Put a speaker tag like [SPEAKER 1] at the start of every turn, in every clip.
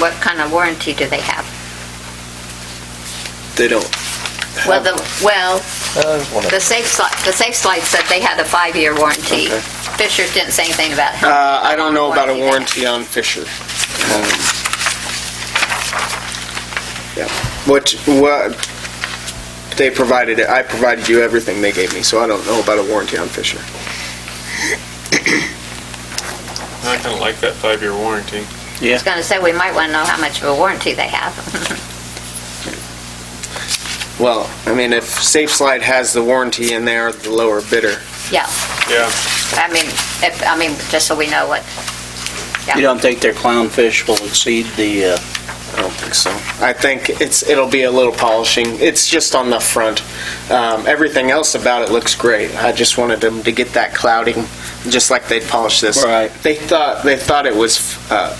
[SPEAKER 1] what kind of warranty do they have?
[SPEAKER 2] They don't.
[SPEAKER 1] Well,
[SPEAKER 2] have
[SPEAKER 1] the,
[SPEAKER 2] one.
[SPEAKER 1] well,
[SPEAKER 3] Uh, one of-
[SPEAKER 1] the safe slide, the safe slide said they had a five-year warranty.
[SPEAKER 2] Okay.
[SPEAKER 1] Fisher didn't say anything about how.
[SPEAKER 2] Uh, I don't know about a
[SPEAKER 1] Warranty
[SPEAKER 2] warranty on Fisher. Um, Yeah, what, what, they provided it, I provided you everything they gave me, so I don't know about a warranty on Fisher.
[SPEAKER 4] I kind of like that five-year warranty.
[SPEAKER 1] I was gonna say, we might wanna know how much of a warranty they have.
[SPEAKER 2] Well, I mean, if Safe Slide has the warranty and they are the lower bidder,
[SPEAKER 1] Yeah,
[SPEAKER 4] Yeah.
[SPEAKER 1] I mean, if, I mean, just so we know what, yeah.
[SPEAKER 5] You don't think their clownfish will exceed the, uh,
[SPEAKER 2] I don't think so. I think it's, it'll be a little polishing, it's just on the front. Um, everything else about it looks great, I just wanted them to get that clouding, just like they'd polish this.
[SPEAKER 5] Right.
[SPEAKER 2] They thought, they thought it was, uh,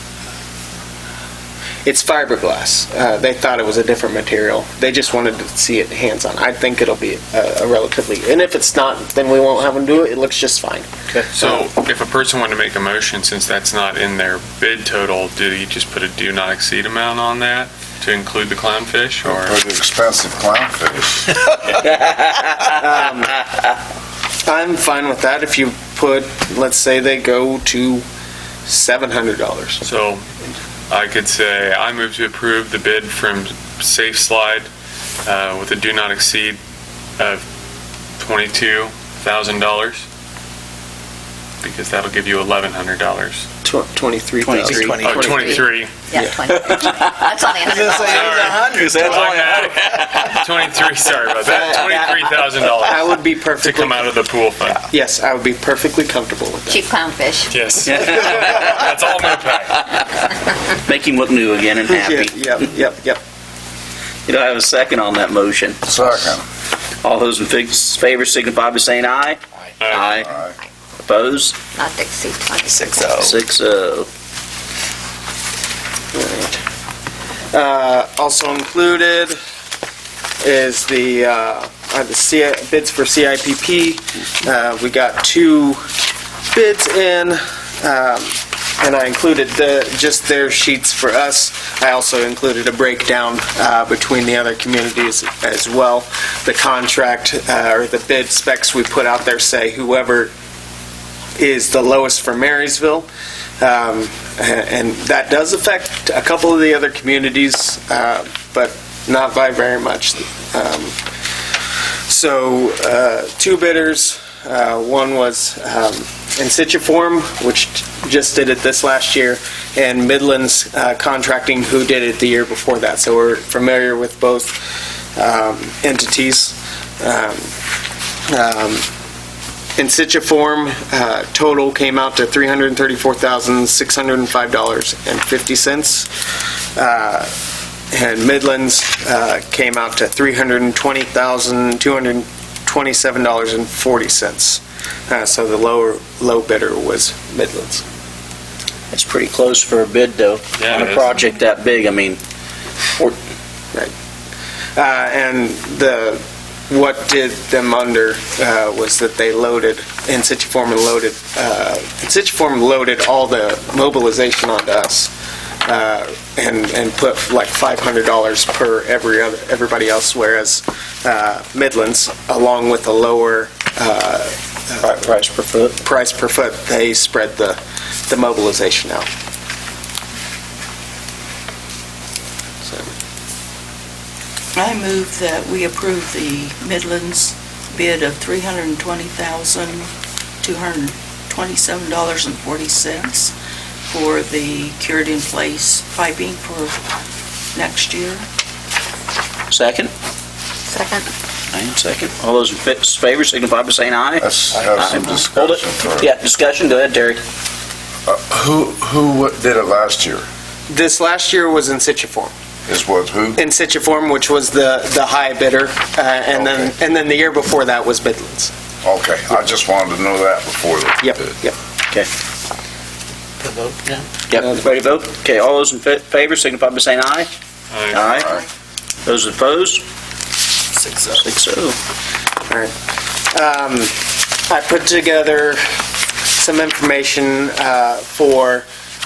[SPEAKER 2] it's fiberglass. Uh, they thought it was a different material. They just wanted to see it hands-on. I think it'll be a a relatively, and if it's not, then we won't have them do it, it looks just fine.
[SPEAKER 4] So if a person wanted to make a motion, since that's not in their bid total, do you just put a do not exceed amount on that to include the clownfish or?
[SPEAKER 6] Pretty expensive clownfish.
[SPEAKER 2] I'm fine with that if you put, let's say they go to $700.
[SPEAKER 4] So I could say, I move to approve the bid from Safe Slide uh, with a do not exceed of $22,000 because that'll give you $1,100.
[SPEAKER 2] Tw- 23,000.
[SPEAKER 5] Twenty-three.
[SPEAKER 4] Oh, 23.
[SPEAKER 1] Yeah, 20. That's only 100.
[SPEAKER 4] Oh, My bad. 23, sorry about
[SPEAKER 2] I
[SPEAKER 4] that.
[SPEAKER 2] would be
[SPEAKER 4] $23,000 to
[SPEAKER 2] perfectly,
[SPEAKER 4] come out of the pool fund.
[SPEAKER 2] yes, I would be perfectly comfortable with that.
[SPEAKER 1] Cheap clownfish.
[SPEAKER 4] Yes. That's all my pack.
[SPEAKER 5] make him look new again and happy?
[SPEAKER 2] Yeah, Yep, yep, yep.
[SPEAKER 5] You know, I have a second on that motion.
[SPEAKER 6] Second.
[SPEAKER 5] All those in fi- favor signify by saying aye. Aye.
[SPEAKER 6] Aye.
[SPEAKER 5] Opposed?
[SPEAKER 1] Not to exceed 20.
[SPEAKER 3] Six oh.
[SPEAKER 5] Six oh.
[SPEAKER 2] Uh, Also included is the, uh, are the C- bids for CIPP. Uh, We got two bids in, um, and I included the, just their sheets for us. I also included a breakdown uh, between the other communities as well. The contract, uh, or the bid specs we put out there say whoever is the lowest for Marysville. Um, and that does affect a couple of the other communities, uh, but not by very much. Um, So, uh, two bidders, Uh, one was um, Insituform, which just did it this last year, and Midlands uh, Contracting, who did it the year before that. So we're familiar with both um, entities. Um, um, in Situform, uh, total came out to $334,605.50. Uh, And Midlands uh, came out to $320,227.40. Uh, So the lower, low bidder was Midlands.
[SPEAKER 5] That's pretty close for a bid, though.
[SPEAKER 4] Yeah,
[SPEAKER 5] On
[SPEAKER 4] it
[SPEAKER 5] a
[SPEAKER 4] is.
[SPEAKER 5] project that big, I mean,
[SPEAKER 2] Uh, And the, what did them under uh, was that they loaded, in Situform and loaded, uh, in Situform loaded all the mobilization onto us uh, and, and put like $500 per every other, everybody else, whereas uh, Midlands, along with a lower uh,
[SPEAKER 5] pri- price per foot.
[SPEAKER 2] price per foot, they spread the, the mobilization out. So,
[SPEAKER 7] I move that we approve the Midlands bid of $320,227.40 for the cured-in-place piping for next year.
[SPEAKER 5] Second?
[SPEAKER 1] Second.
[SPEAKER 5] Aye, second. All those in fi- favor signify by saying aye.
[SPEAKER 6] Let's have some
[SPEAKER 5] Aye. Hold it.
[SPEAKER 6] discussion first.
[SPEAKER 5] Yeah, discussion, go ahead, Terry.
[SPEAKER 6] Uh, Who, who did it last year?
[SPEAKER 2] This last year was in Situform.
[SPEAKER 6] Is was who?
[SPEAKER 2] in Situform, which was the, the high bidder, uh, and then,
[SPEAKER 6] Okay.
[SPEAKER 2] and then the year before that was Midlands.
[SPEAKER 6] Okay, I just wanted to know that before the
[SPEAKER 2] Yep,
[SPEAKER 6] bid.
[SPEAKER 2] yep.
[SPEAKER 5] Yep, ready to vote? Okay, all those in fa- favor signify by saying aye.
[SPEAKER 4] Aye.
[SPEAKER 5] Aye. Those opposed?
[SPEAKER 3] Six oh.
[SPEAKER 5] Six oh.
[SPEAKER 2] Um, I put together some information uh, for